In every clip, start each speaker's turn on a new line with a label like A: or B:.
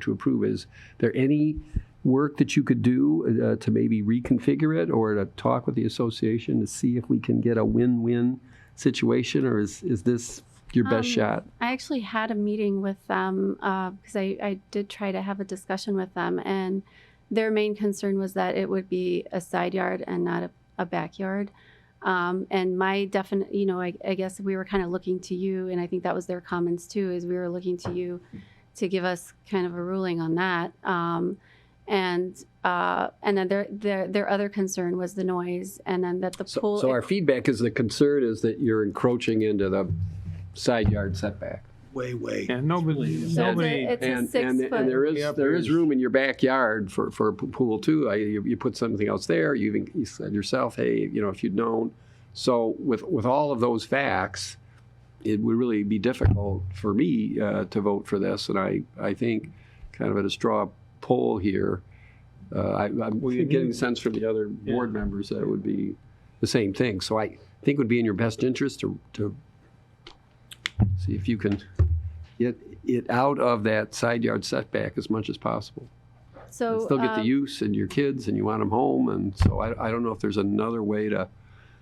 A: to approve. Is there any work that you could do uh, to maybe reconfigure it or to talk with the association to see if we can get a win-win situation, or is, is this your best
B: Um,
A: shot?
B: I actually had a meeting with them because I, I did try to have a discussion with them, and their main concern was that it would be a side yard and not a, a backyard. Um, and my definite, you know, I, I guess we were kind of looking to you, and I think that was their comments too, is we were looking to you to give us kind of a ruling on that. Um, and uh, and then their, their their other concern was the noise, and then that the
A: So,
B: pool.
A: so our feedback is the concern is that you're encroaching into the side yard setback.
C: way, way.
D: Yeah, nobody,
B: So it's a-
D: nobody.
B: it's a
A: And,
B: six
A: and,
B: foot.
A: and there is,
D: Yep,
A: there is
D: there's-
A: room in your backyard for, for a p- pool too. I, you, you put something else there, you even, you said yourself, hey, you know, if you'd known. So with, with all of those facts, it would really be difficult for me, uh, to vote for this. And I, I think kind of at a straw poll here, uh, I, I'm
D: Well, you
A: getting
D: need-
A: the sense from the other
D: Yeah.
A: board members that it would be the same thing. So I think it would be in your best interest to, to see if you can get it out of that side yard setback as much as possible.
B: so
A: And still get the
B: um,
A: use and your kids and you want them home. And so I, I don't know if there's another way to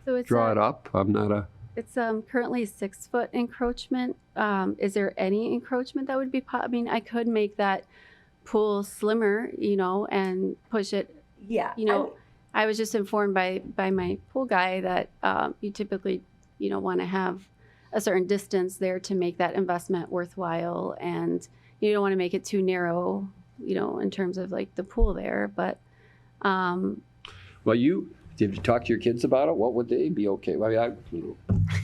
B: so it's
A: draw
B: a-
A: it up. I'm not a,
B: It's um, currently six foot encroachment. Um, is there any encroachment that would be, po- I mean, I could make that pool slimmer, you know, and push it.
E: Yeah.
B: You know, I was just informed by, by my pool guy that um, you typically, you know, want to have a certain distance there to make that investment worthwhile. And you don't want to make it too narrow, you know, in terms of like the pool there, but, um,
A: well, you, did you talk to your kids about it? What would they be okay? Well, I, you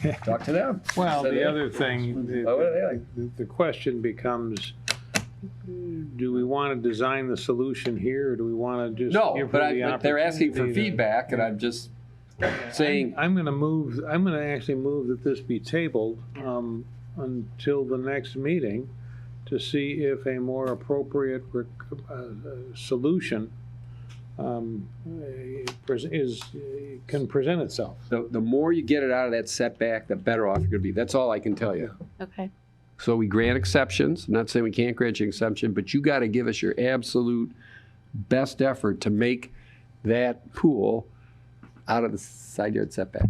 A: know, talk to them.
D: Well,
A: Said they-
D: the other thing, the,
A: Well, what are they like?
D: the- the question becomes, do we want to design the solution here, or do we want to just?
A: No,
D: give
A: but
D: her
A: I,
D: the
A: but they're asking for
D: opportunity to-
A: feedback and I'm just saying,
D: I'm going to move, I'm going to actually move that this be tabled um, until the next meeting to see if a more appropriate rec- uh, uh, solution um, eh, pres- is, eh, can present itself.
A: the, the more you get it out of that setback, the better off you're gonna be. That's all I can tell you.
B: okay.
A: So we grant exceptions. I'm not saying we can't grant you an exception, but you got to give us your absolute best effort to make that pool out of the side yard setback.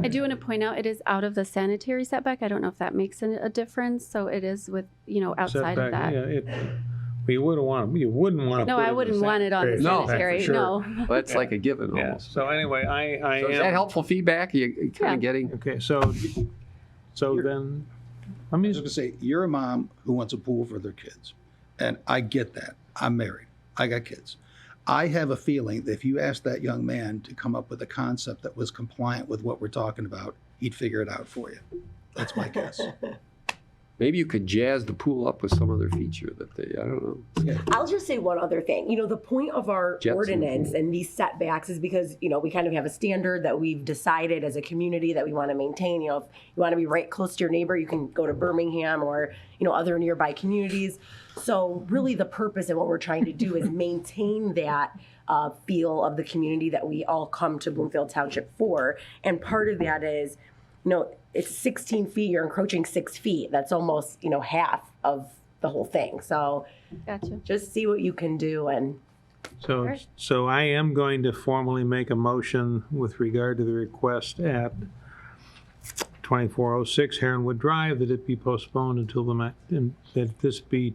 B: I do want to point out, it is out of the sanitary setback. I don't know if that makes an- a difference, so it is with, you know, outside of that.
D: Setback, yeah, it- We wouldn't want, you wouldn't want to.
B: No, I wouldn't want it on the
A: No, for
B: sanitary, no.
A: Well, that's like a given
D: Yeah,
A: almost.
D: so anyway, I, I
A: So
D: am.
A: is that helpful feedback? Are you kind
B: Yeah.
A: of getting?
D: Okay, so, so then, I
C: I
D: mean,
C: was gonna say, you're a mom who wants a pool for their kids, and I get that. I'm married. I got kids. I have a feeling that if you asked that young man to come up with a concept that was compliant with what we're talking about, he'd figure it out for you. That's my guess.
A: Maybe you could jazz the pool up with some other feature that they, I don't know.
E: I'll just say one other thing. You know, the point of our
A: Jets and-
E: ordinance and these setbacks is because, you know, we kind of have a standard that we've decided as a community that we want to maintain. You know, if you want to be right close to your neighbor, you can go to Birmingham or, you know, other nearby communities. So, really, the purpose and what we're trying to do is maintain that uh, feel of the community that we all come to Bloomfield Township for. And part of that is, you know, it's 16 feet, you're encroaching six feet. That's almost, you know, half of the whole thing. So,
B: Gotcha.
E: just see what you can do and
D: so,
B: Sure.
D: so I am going to formally make a motion with regard to the request at 2406 Heronwood Drive that it be postponed until the, ma- and that this be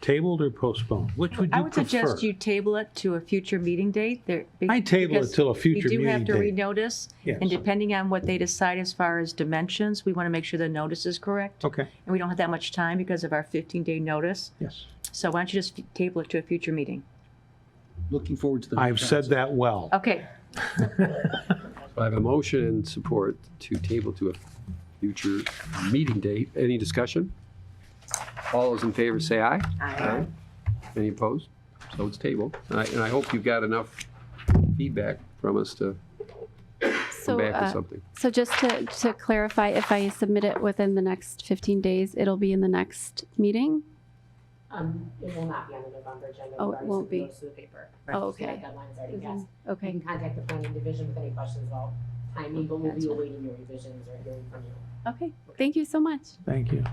D: tabled or postponed, which would
F: I
D: you
F: would suggest
D: prefer?
F: you table it to a future meeting date. There- be-
D: I table it
F: because
D: till a future
F: You do have to
D: meeting
F: renotice,
D: Yes.
F: and depending on what they decide as far as dimensions, we want to make sure the notice is correct.
D: Okay,
F: And we don't have that much time because of our 15-day notice.
D: yes.
F: So why don't you just table it to a future meeting?
C: Looking forward to the.
D: I've said that well.
F: Okay,
A: I have a motion and support to table to a future meeting date. Any discussion? All those in favor say aye. Aye. Any opposed? So it's tabled. And I, and I hope you've got enough feedback from us to come
B: So,
A: back to
B: uh,
A: something.
B: so just to, to clarify, if I submit it within the next fifteen days, it'll be in the next meeting?
G: Um, it will not be on the November agenda.
B: Oh,
G: We've
B: it
G: already
B: won't be.
G: sent the notice to the paper.
B: Oh,
G: So that
B: okay. Mm-hmm.
G: deadline's already passed. You
B: Okay,
G: can contact the planning division with any questions about
D: Mm-hmm.
G: timing, but we'll be awaiting your revisions or hearing from you.
B: okay. Thank you so much.
D: Thank you.